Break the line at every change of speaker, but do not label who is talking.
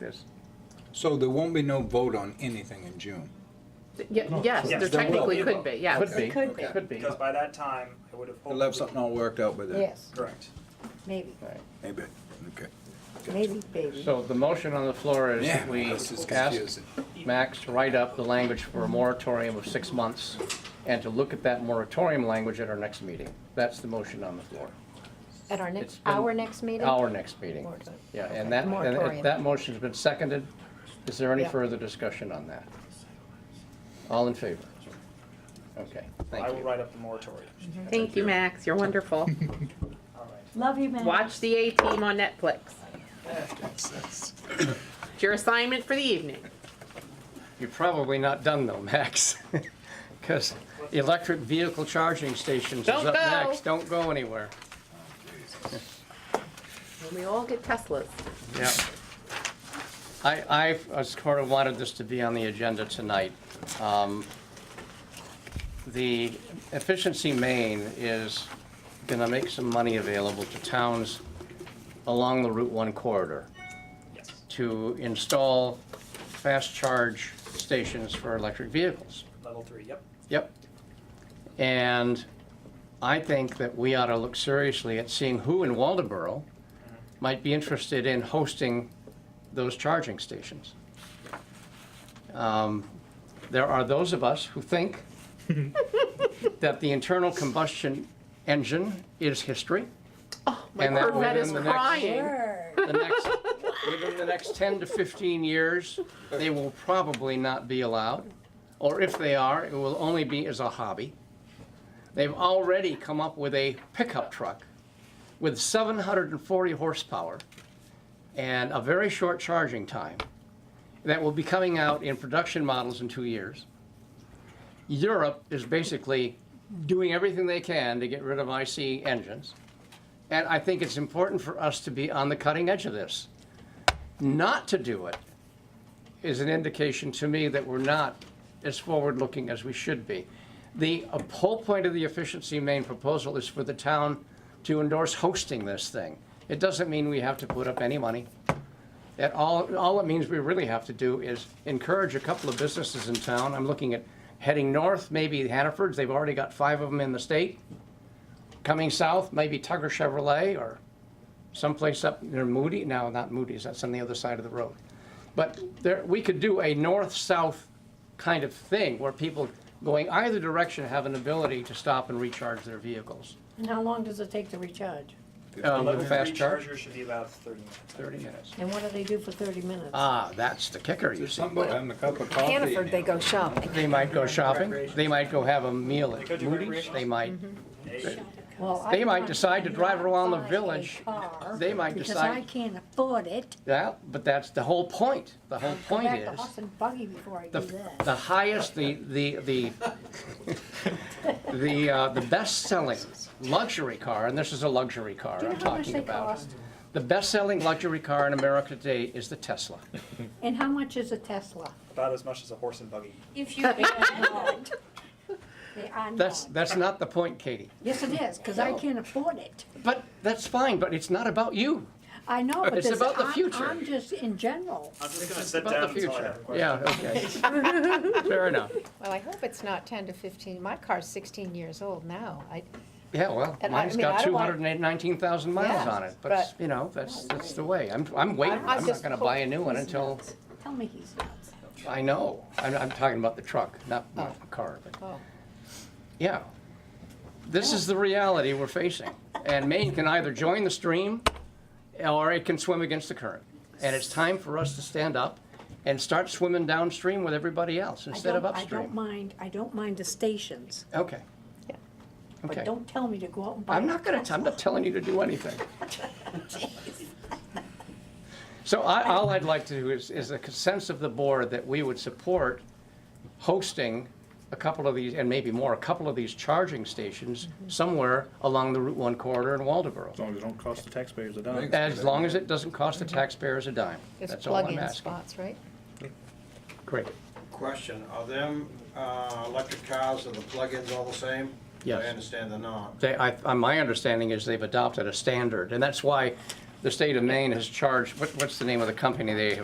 There's,
So there won't be no vote on anything in June?
Ye- Yes, there
Yes, there
technically
will.
could be, yeah.
could be,
It could be.
could be,
Because by that time, I would have hoped.
You'll have something all worked out by then?
Yes,
Correct.
maybe,
right.
Maybe, okay.
maybe, maybe.
So the motion on the floor is
Yeah,
that we
this is
ask
confusing.
Max to write up the language for a moratorium of six months and to look at that moratorium language at our next meeting. That's the motion on the floor,
At our
it's
next,
been-
our next meeting?
our next meeting.
Moratorium.
Yeah,
Okay,
and that, and if
moratorium.
that motion's been seconded, is there any
Yeah.
further discussion on that? All in favor? Okay, thank
I
you.
will write up the moratorium.
Thank you, Max, you're wonderful.
All right.
Love you, man.
Watch the A-Team on Netflix. It's your assignment for the evening.
You're probably not done though, Max, because electric vehicle charging stations is
Don't
up
go.
next. Don't go anywhere.
When we all get Teslas.
Yeah. I, I uh, sort of wanted this to be on the agenda tonight. Um, The Efficiency Maine is gonna make some money available to towns along the Route One corridor
Yes.
to install fast charge stations for electric vehicles.
Level three, yep.
Yep. And I think that we ought to look seriously at seeing who in Waldeboro might be interested in hosting those charging stations. Um, There are those of us who think that the internal combustion engine is history.
Oh, My
And that
Corvette
within
is
the next-
crying.
Sure.
The next, within the next 10 to 15 years, they will probably not be allowed. Or if they are, it will only be as a hobby. They've already come up with a pickup truck with 740 horsepower and a very short charging time that will be coming out in production models in two years. Europe is basically doing everything they can to get rid of IC engines. And I think it's important for us to be on the cutting edge of this. Not to do it is an indication to me that we're not as forward-looking as we should be. The uh, whole point of the efficiency main proposal is for the town to endorse hosting this thing. It doesn't mean we have to put up any money. That all, all it means we really have to do is encourage a couple of businesses in town. I'm looking at heading north, maybe Hannaford's, they've already got five of them in the state coming south, maybe Tugger Chevrolet or someplace up near Moody. No, not Moody's, that's on the other side of the road. But there, we could do a north-south kind of thing where people going either direction have an ability to stop and recharge their vehicles.
And how long does it take to recharge?
Um, with
Level
a
three
fast charge,
charger should be about thirty minutes.
thirty minutes.
And what do they do for thirty minutes?
Ah, that's the kicker, you see.
Something about having a cup of coffee.
Uh, Hannaford, they go shopping.
They might go shopping, they might go have a meal
They
at
could do
Moody's,
recreational.
they might,
Mm-hmm.
Hey,
Well, I
They might
want
decide to
not
drive around the
buy a
village.
car
they might
Because I
decide,
can't afford it.
yeah, but that's the whole point. The whole
Go
point
back to
is.
horse and buggy before I do
The,
that.
the highest, the, the, the, the, uh, the best-selling luxury car, and this is a luxury car
Do you
I'm
know how much
talking
they
about.
cost?
The best-selling luxury car in America today is the Tesla.
And how much is a Tesla?
About as much as a horse and buggy.
If you. They are not. They are
That's,
not.
that's not the point, Katie.
Yes, it is, because I can't afford it.
But that's fine, but it's not about you.
I know, but
It's
this,
about the
I'm,
future.
I'm just in general.
I'm just gonna sit
About
down
the
until I
future.
have a question.
Yeah, okay. Fair enough.
Well, I hope it's not 10 to 15. My car's 16 years old now. I,
Yeah, well,
And I- I
mine's
mean,
got
I don't
two
want-
hundred and eight, nineteen thousand miles
Yeah,
on it,
but-
but, you know, that's, that's the way. I'm, I'm waiting.
I'm
I'm not
just
gonna buy a
hoping
new one
he's
until,
Tell me he's nuts.
I know. I'm, I'm talking about the truck, not, not the car, but.
oh,
Yeah. This is the reality we're facing. And Maine can either join the stream or it can swim against the current. And it's time for us to stand up and start swimming downstream with everybody else
I
instead of
don't- I don't
upstream.
mind, I don't mind the stations,
Okay.
Yeah.
but
Okay.
don't tell me to go out and buy.
I'm
a
not gonna,
Tesla.
I'm not telling you to do anything. So I, all I'd like to do is, is a sense of the board that we would support hosting a couple of these, and maybe more, a couple of these charging stations
Mm-hmm.
somewhere along the Route One corridor in Waldeboro.
As long as it don't cost the taxpayers a dime.
As long as it doesn't cost the taxpayers a dime.
Mm-hmm. it's
That's all I'm
plug-in
asking.
spots, right?
Great.
Question, are them uh, electric cars and the plug-ins all the same?
Yes.
I understand they're not.
They, I, uh, my understanding is they've adopted a standard, and that's why the state of Maine has charged, what, what's the name of the company they